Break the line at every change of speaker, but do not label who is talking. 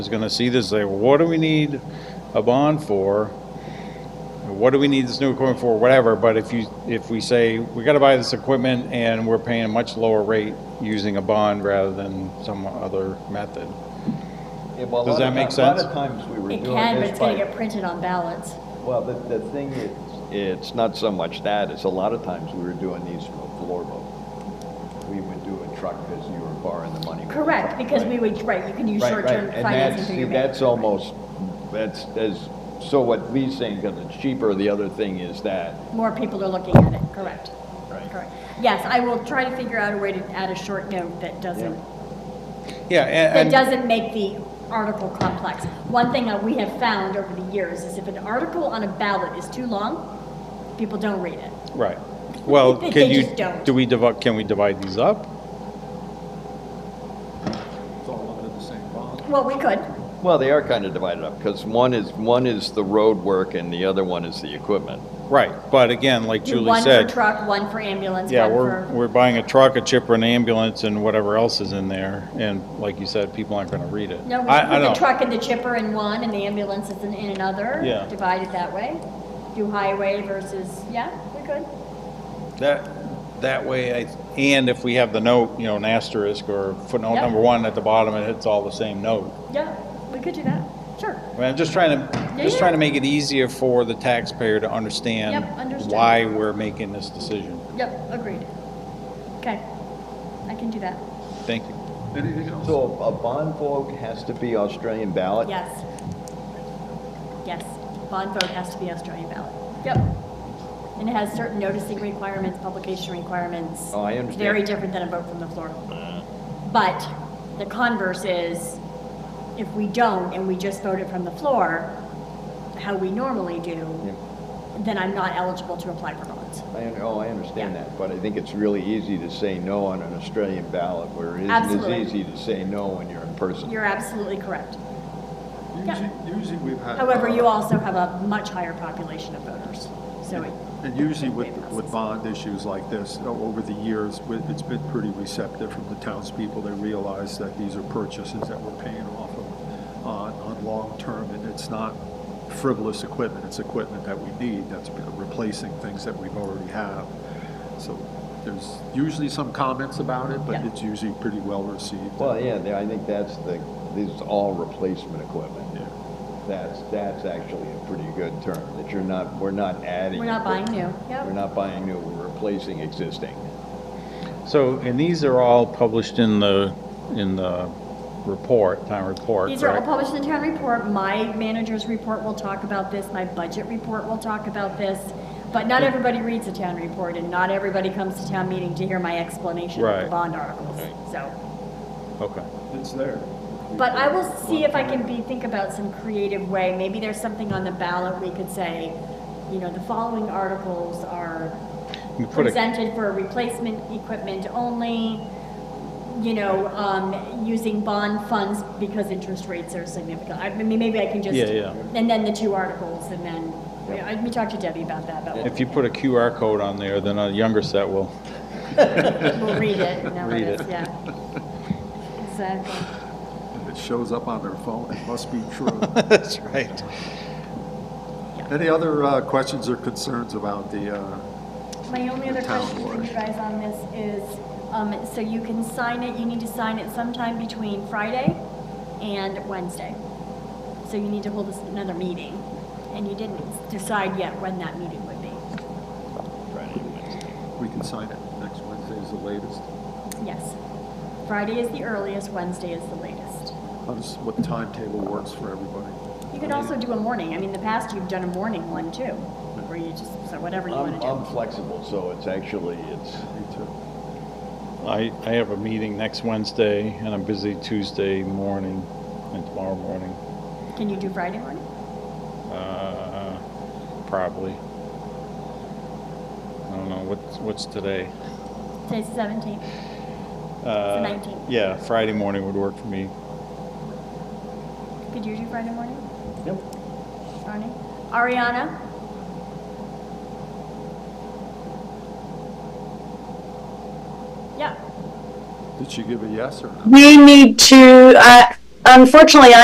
is gonna see this, say, what do we need a bond for? What do we need this new equipment for, whatever, but if you, if we say, we gotta buy this equipment and we're paying a much lower rate using a bond rather than some other method.
Yeah, well, a
Does
lot of
that make
ti- A lot
sense?
of times we were doing
It
this
can, but it's
by-
gonna get printed on ballots.
Well, the, the thing is, it's not so much that, it's a lot of times we were doing these from a floorboat. We would do a truck because you were borrowing the money. with the
Correct,
truck,
because
right?
we would, right, you can use
Right, right,
short-term
and
financing
that's,
through
see,
your bank.
that's almost, that's, that's, so what Lee's saying, because it's cheaper, the other thing is that,
More people are looking at it, correct.
Right.
Correct. Yes, I will try to figure out a way to add a short note that doesn't,
Yeah,
that
and, and,
doesn't make the article complex. One thing that we have found over the years is if an article on a ballot is too long, people don't read it.
right, well,
They
can you,
just don't.
do we divide, can we divide these up?
Well, we could,
well, they are kind of divided up, because one is, one is the road work and the other one is the equipment.
Right, but again, like
do
Julie
one for
said,
truck, one for ambulance,
yeah,
one
we're,
for,
we're buying a truck, a chipper, an ambulance, and whatever else is in there, and like you said, people aren't gonna read it.
no, we
I- I
put the
don't-
truck and the chipper in one and the ambulance is in in another.
Yeah.
Divided that way. Do highway versus, yeah, we could.
That, that way, I, and if we have the note, you know, an asterisk or footnote
Yeah.
number one at the bottom, it hits all the same note.
Yeah, we could do that, sure.
I mean, I'm just trying to,
Yeah,
just
yeah.
trying to make it easier for the taxpayer to understand
Yep, understood.
why we're making this decision.
Yep, agreed. Okay, I can do that.
Thank you.
Anything else?
So a bond vote has to be Australian ballot?
Yes. Yes, bond vote has to be Australian ballot. Yep. And it has certain noticing requirements, publication requirements.
Oh, I understand. Uh.
Very different than a vote from the floor. But the converse is, if we don't and we just vote it from the floor, how we normally do,
Yeah.
then I'm not eligible to apply for bonds.
I, un- oh, I understand
Yeah.
that, but I think it's really easy to say no on an Australian ballot, where it isn't
Absolutely.
as easy to say no when you're in person.
You're absolutely correct.
Usually, usually we've had. uh,
However, you also have a much higher population of voters, so it.
And usually with, with bond issues like this, you know, over the years, we- it's been pretty receptive from the townspeople. They realize that these are purchases that we're paying off of on, on long-term, and it's not frivolous equipment. It's equipment that we need, that's been replacing things that we've already have. So there's usually some comments about it, but
Yeah.
it's usually pretty well received.
Well, yeah, they- I think that's the, this is all replacement equipment.
Yeah.
That's, that's actually a pretty good term, that you're not, we're not adding.
We're not buying new, yep.
We're not buying new, we're replacing existing.
So, and these are all published in the, in the report, town report,
These are all
correct?
published in the town report. My manager's report will talk about this, my budget report will talk about this. But not everybody reads the town report and not everybody comes to town meeting to hear my explanation of the
Right.
bond articles, so.
Okay.
It's there.
But I will see if I can be, think about some creative way. Maybe there's something on the ballot we could say, you know, the following articles are
We put a-
presented for replacement equipment only, you know, um, using bond funds because interest rates are significant. I mean, maybe I can just.
Yeah, yeah.
And then the two articles, and then, I- we talked to Debbie about that, but
If you put a QR code on there, then a younger set will.
we'll read it, and
Read
it is,
it.
yeah. Exactly.
If it shows up on their phone, it must be true.
That's right.
Any other uh, questions or concerns about the, uh,
My only other
The town
question for
board.
you guys on this is, um, so you can sign it, you need to sign it sometime between Friday and Wednesday. So you need to hold this- another meeting, and you didn't decide yet when that meeting would be.
we can sign it next Wednesday is the latest?
Yes. Friday is the earliest, Wednesday is the latest.
How does, what timetable works for everybody?
You could also do a morning, I mean, in the past, you've done a morning one too, where you just, so whatever you
I'm,
want to
I'm
do.
flexible, so it's actually, it's,
Me too.
I, I have a meeting next Wednesday and I'm busy Tuesday morning and tomorrow morning,
Can you do Friday morning?
uh, probably. I don't know, what's, what's today?
Today's the seventeenth.
Uh,
19th.
Yeah, Friday morning would work for me.
Could you do Friday morning? Yep. Friday. Ariana? Yeah.
Did she give a yes or no?
We need to, uh, unfortunately,